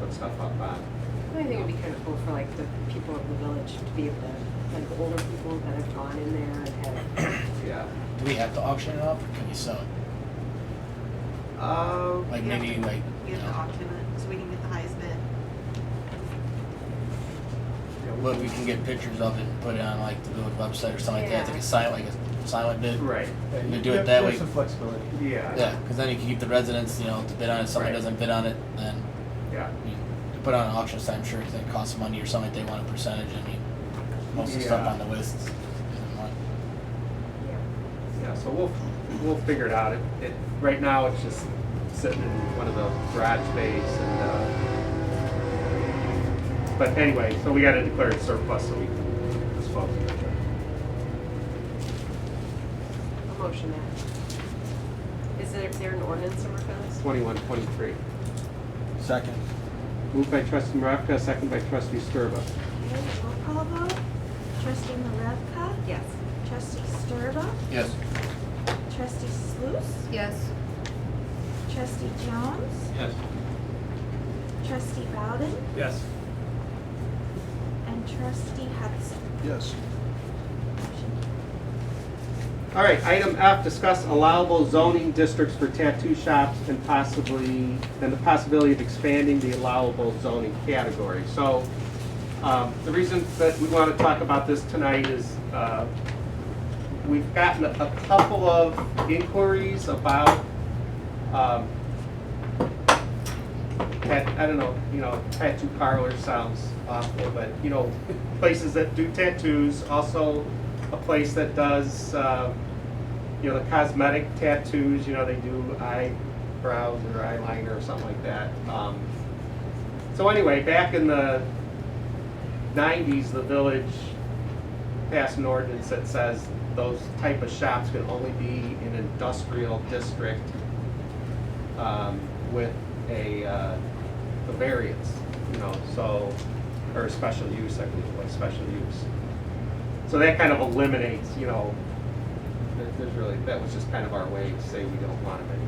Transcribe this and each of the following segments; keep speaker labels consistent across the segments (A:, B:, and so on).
A: and stuff up uh, on.
B: I think it'd be kind of cool for like the people of the village to be able to, like older people that have gone in there and have,
A: Yeah.
C: Do we have to auction it off or can you sell it?
A: Um,
C: Like
D: You have
C: maybe
D: to-
C: like,
D: You
C: you
D: have to
C: know,
D: auction it, so we can get the highest bid.
A: yeah, we-
C: what we can get pictures of it and put it on like the village website or something like that, like
B: Yeah.
C: a silent, like a silent bid.
A: Right.
E: Yeah,
C: We
E: you-
C: do it
E: there-
C: that
E: there's
C: way.
E: some flexibility.
A: Yeah.
C: Yeah, because then you can keep the residents, you know, to bid on it. If somebody
A: Right.
C: doesn't bid on it, then
A: Yeah.
C: I mean, to put on an auction site, I'm sure it's gonna cost money or something. They want a percentage. I mean, most of the stuff
A: Yeah.
C: on the list isn't money.
A: Yeah, so we'll, we'll figure it out. It, it, right now, it's just sitting in one of the garage bays and, uh, but anyway, so we gotta declare it surplus so we can dispose of it.
B: a motion that. Is there, there an ordinance over for this?
A: Twenty-one, twenty-three.
E: Second.
A: Moved by trustee Maravka, second by trustee Sturba.
F: Okay, roll call vote. Trustee Maravka?
B: Yes.
F: Trustee Sturba?
C: Yes.
F: Trustee Sluse?
D: Yes.
F: Trustee Jones?
E: Yes.
F: Trustee Bowden?
E: Yes.
F: And Trustee Hudson?
E: Yes.
A: All right, item F, discuss allowable zoning districts for tattoo shops and possibly, and the possibility of expanding the allowable zoning category. So, um, the reason that we want to talk about this tonight is, uh, we've gotten a couple of inquiries about, um, tat, I don't know, you know, tattoo parlor sounds awful, but, you know, places that do tattoos, also a place that does, um, you know, the cosmetic tattoos, you know, they do eyebrows or eyeliner or something like that. Um, So anyway, back in the nineties, the village passed an ordinance that says those type of shops can only be in industrial district um, with a, uh, a variance, you know, so, or special use, I believe, like special use. So that kind of eliminates, you know, there- there's really, that was just kind of our way to say we don't want them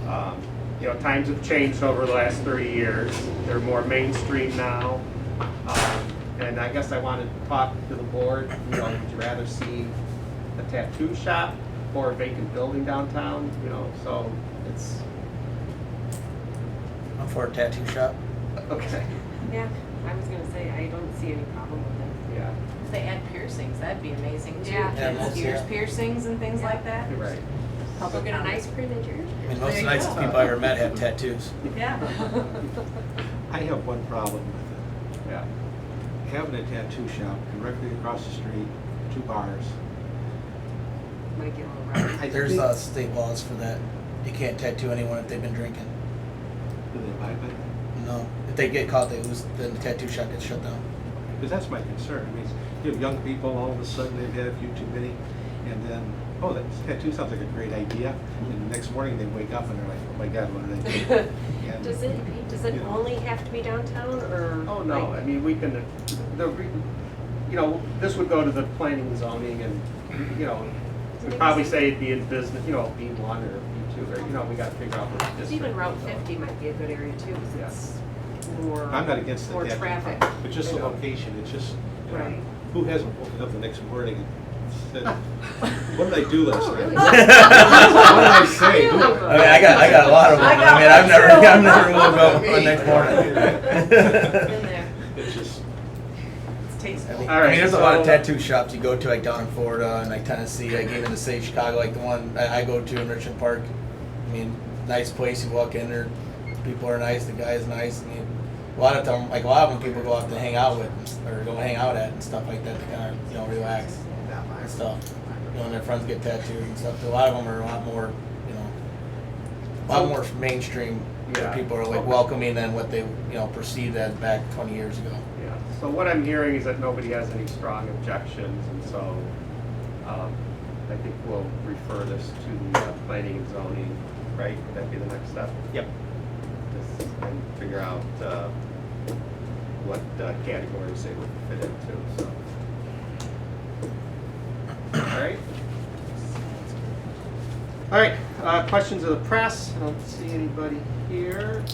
A: anywhere. Um, You know, times have changed over the last thirty years, they're more mainstream now. Um, And I guess I wanted to talk to the board, you know, would you rather see a tattoo shop or a vacant building downtown, you know, so it's,
C: I'm for a tattoo shop.
A: okay,
B: Yeah, I was gonna say, I don't see any problem with
A: yeah,
G: If they add piercings, that'd be amazing too.
B: Yeah.
C: Yeah,
G: Kids'
C: most-
G: ears
C: yeah.
G: piercings and things like that.
A: you're right.
B: it. Go get an ice cream in your.
C: I mean, most
G: There you
C: nice
G: go.
C: people I ever met have tattoos.
G: Yeah.
E: I have one problem with
A: Yeah,
E: it. Having a tattoo shop directly across the street, two bars.
B: Might get a little rough.
E: I
C: There's
E: think-
C: uh, state laws for that. You can't tattoo anyone if they've been drinking.
E: Do they buy it?
C: No, if they get caught, they lose. Then the tattoo shop gets shut down.
E: Because that's my concern. I mean, you have young people, all of a sudden they've had a few too many, and then, oh, that tattoo sounds like a great idea. And the next morning they wake up and they're like, oh my God, what did I do? And-
B: Does it, does it
E: Yeah.
B: only have to be downtown or?
A: oh no, I
B: like-
A: mean, we can, the, re- you know, this would go to the planning and zoning and, you know, we'd probably say it'd be in business, you know, B one or B two, or, you know, we gotta figure out which district.
B: Even Route fifty might be a good area too, because it's more.
E: I'm not against the
B: More
E: tattoo.
B: traffic.
E: But just the location, it's just, you know,
B: Right.
E: who hasn't woken up the next morning and said, what did I do
G: Oh,
E: last night?
B: Oh, really?
E: What did I say? Who-
C: I mean, I got, I got a lot of them.
G: I
C: I,
G: got
C: mean, I've
G: one
C: never,
G: too.
C: I've never woke up the next morning.
G: Been there.
E: It's just,
G: It's tasteful.
C: I mean,
A: All
C: I
A: right,
C: mean, there's a lot of
A: so-
C: tattoo shops you go to, like down in Florida and like Tennessee, like even to say Chicago, like the one I, I go to in Richmond Park. I mean, nice place. You walk in there, people are nice. The guy is nice. I mean, a lot of them, like a lot of them, people go out to hang out with and s- or go hang out at and stuff like that to kind of you know relax and stuff. You know, and their friends get tattooed and stuff. A lot of them are a lot more, you know, a lot more mainstream. where
A: Yeah.
C: people are like welcoming than what they you know perceived as back 20 years ago.
A: Yeah, so what I'm hearing is that nobody has any strong objections, and so um, I think we'll refer this to the uh, planning and zoning, right? Would that be the next step?
E: Yep.
A: Just and figure out uh, what uh, categories they would fit into, so. All right. All right, uh, questions of the press? I don't see anybody here.